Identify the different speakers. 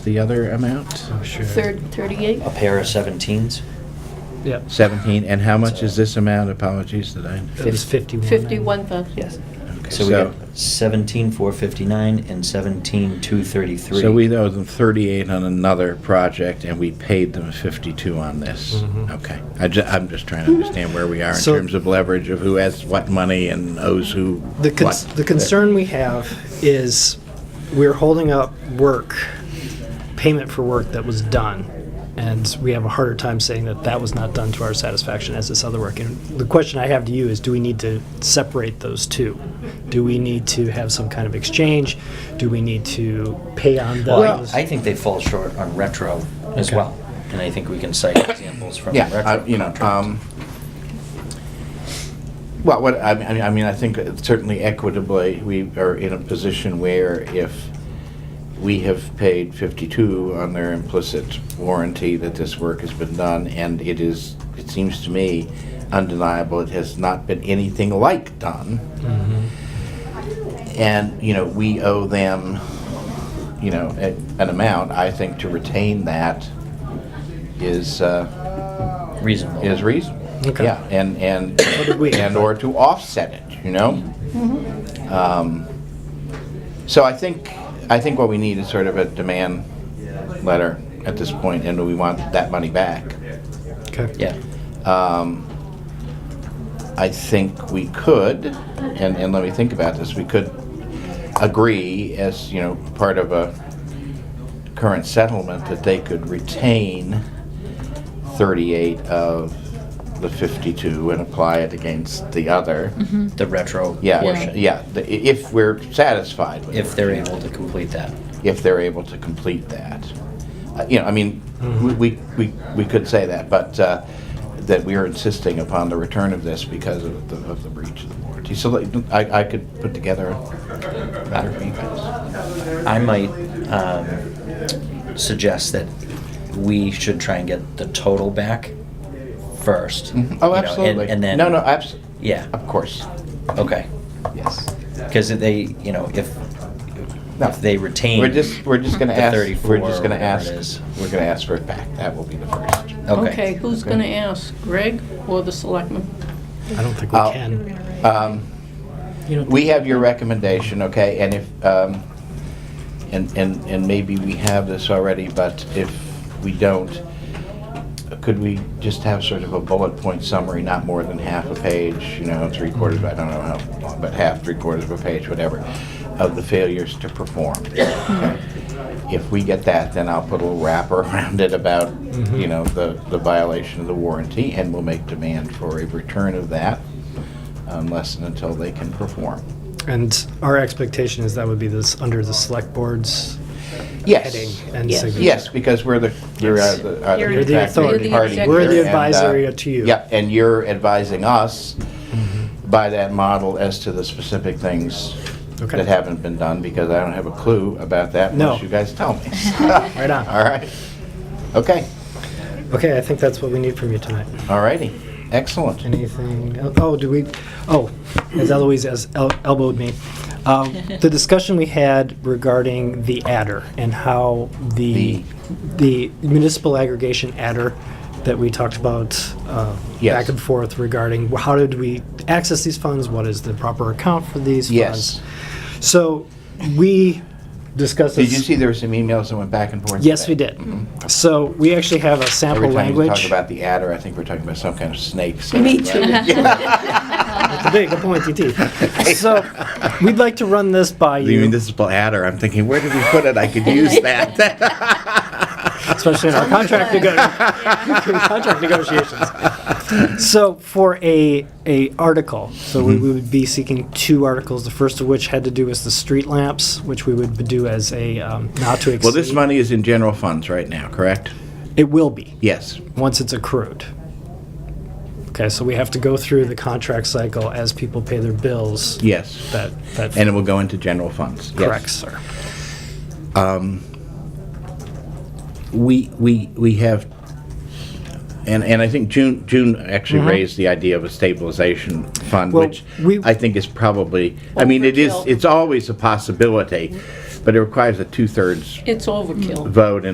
Speaker 1: the other amount?
Speaker 2: Oh, sure.
Speaker 3: Third, 38?
Speaker 4: A pair of 17s.
Speaker 2: Yep.
Speaker 1: 17, and how much is this amount? Apologies that I,
Speaker 2: It was 51.
Speaker 3: 51,000.
Speaker 4: Yes.
Speaker 1: Okay,
Speaker 4: So we
Speaker 1: so-
Speaker 4: got 17,459 and 17,233.
Speaker 1: so we owe them 38 on another project, and we paid them 52 on this.
Speaker 2: Mhm.
Speaker 1: Okay. I ju, I'm just trying to understand where we are in
Speaker 2: So-
Speaker 1: terms of leverage of who has what money and owes who
Speaker 2: The, cons-
Speaker 1: what.
Speaker 2: the concern we have is we're holding up work, payment for work that was done. And we have a harder time saying that that was not done to our satisfaction as this other work. And the question I have to you is do we need to separate those two? Do we need to have some kind of exchange? Do we need to pay on
Speaker 4: Well, I-
Speaker 2: those?
Speaker 4: I think they fall short on retro as
Speaker 2: Okay.
Speaker 4: well. And I think we can cite examples from the
Speaker 1: Yeah,
Speaker 4: retro
Speaker 1: I- you know,
Speaker 4: contracts.
Speaker 1: um, well, what, I mean, I mean, I think certainly equitably, we are in a position where if we have paid 52 on their implicit warranty that this work has been done, and it is, it seems to me undeniable, it has not been anything like done. And, you know, we owe them, you know, a- an amount, I think to retain that is, uh,
Speaker 4: Reasonable.
Speaker 1: is reasonable.
Speaker 2: Okay.
Speaker 1: Yeah, and, and,
Speaker 2: did we-
Speaker 1: and or to offset it, you know? Um, So I think, I think what we need is sort of a demand letter at this point, and we want that money back.
Speaker 2: okay.
Speaker 4: Yeah.
Speaker 1: Um, I think we could, and, and let me think about this, we could agree as, you know, part of a current settlement that they could retain 38 of the 52 and apply it against the other.
Speaker 4: The retro
Speaker 1: Yeah,
Speaker 4: portion.
Speaker 1: yeah, the- i- if we're satisfied with it.
Speaker 4: If they're able to complete that.
Speaker 1: If they're able to complete that. Uh, You know, I mean, we- we, we, we could say that, but, uh, that we are insisting upon the return of this because of the, of the breach of the warranty. So like, I, I could put together a matter of emails.
Speaker 4: I might um, suggest that we should try and get the total back first. you know,
Speaker 1: Oh,
Speaker 4: and-
Speaker 1: absolutely.
Speaker 4: And then.
Speaker 1: No, no, abs,
Speaker 4: Yeah,
Speaker 1: of course,
Speaker 4: okay.
Speaker 1: yes.
Speaker 4: Because they, you know, if,
Speaker 1: No.
Speaker 4: if they retain.
Speaker 1: We're just, we're just gonna
Speaker 4: the
Speaker 1: ask,
Speaker 4: 34
Speaker 1: we're just
Speaker 4: or
Speaker 1: gonna
Speaker 4: whatever
Speaker 1: ask,
Speaker 4: it is.
Speaker 1: we're gonna ask for it back. That will be the first.
Speaker 3: Okay,
Speaker 4: Okay.
Speaker 3: who's going to ask, Greg or the selectman?
Speaker 2: I don't think we
Speaker 4: Uh,
Speaker 1: I'll-
Speaker 2: can.
Speaker 1: Um, We have your recommendation, okay, and if, um, and, and, and maybe we have this already, but if we don't, could we just have sort of a bullet point summary, not more than half a page, you know, three quarters, I don't know how long, but half, three quarters of a page, whatever, of the failures to perform. okay? If we get that, then I'll put a little wrapper around it about, you know, the, the violation of the warranty, and we'll make demand for a return of that unless and until they can perform.
Speaker 2: And our expectation is that would be this under the select board's heading
Speaker 1: Yes,
Speaker 2: and
Speaker 3: Yes.
Speaker 2: signature.
Speaker 1: yes, because we're the, you're uh, the are
Speaker 3: You're
Speaker 1: the
Speaker 3: the
Speaker 1: contracting party.
Speaker 3: authority. You're the
Speaker 1: here,
Speaker 3: We're the
Speaker 1: and, uh,
Speaker 2: advisory to you.
Speaker 1: Yep, and you're advising us by that model as to the specific things
Speaker 2: Okay.
Speaker 1: that haven't been done, because I don't have a clue about that
Speaker 2: No.
Speaker 1: unless you guys tell me.
Speaker 2: Right on.
Speaker 1: All right, okay,
Speaker 2: Okay, I think that's what we need from you tonight.
Speaker 1: all righty, excellent.
Speaker 2: Anything? el- Oh, do we? Oh, as Eloise has el- elbowed me. Um, the discussion we had regarding the adder and how the the municipal aggregation adder that we talked about uh,
Speaker 1: Yes.
Speaker 2: back and forth regarding wh- how did we access these funds? What is the proper account for these
Speaker 1: Yes.
Speaker 2: funds? So we discussed.
Speaker 1: Did
Speaker 2: this-
Speaker 1: you see there were some emails that went back and forth?
Speaker 2: Yes,
Speaker 1: today?
Speaker 2: we did. So we actually have a sample
Speaker 1: Every time we
Speaker 2: language.
Speaker 1: talk about the adder, I think we're talking about some kind of snake. so-
Speaker 5: Me too.
Speaker 2: the big pointy teeth. So we'd like to run this by
Speaker 1: The
Speaker 2: you,
Speaker 1: municipal adder, I'm thinking, where did we put it? I could use that.
Speaker 2: especially in our contract, nego- contract negotiations. So for a a article, so we,
Speaker 1: Mm-hmm.
Speaker 2: we would be seeking two articles. The first of which had to do with the street lamps, which we would do as a um, not to exceed.
Speaker 1: Well, this money is in general funds right now, correct?
Speaker 2: it will be
Speaker 1: Yes.
Speaker 2: once it's accrued. Okay, so we have to go through the contract cycle as people pay their bills.
Speaker 1: Yes.
Speaker 2: That that
Speaker 1: And it will go into general funds. yes.
Speaker 2: correct, sir.
Speaker 1: We, we, we have, and, and I think June, June actually raised the idea of a stabilization fund,
Speaker 2: Mm-hmm. Well,
Speaker 1: which
Speaker 2: we-
Speaker 1: I think is probably, I mean, it is,
Speaker 3: Overkill.
Speaker 1: it's always a possibility,
Speaker 3: But it requires a two-thirds
Speaker 1: It's overkill.
Speaker 3: vote in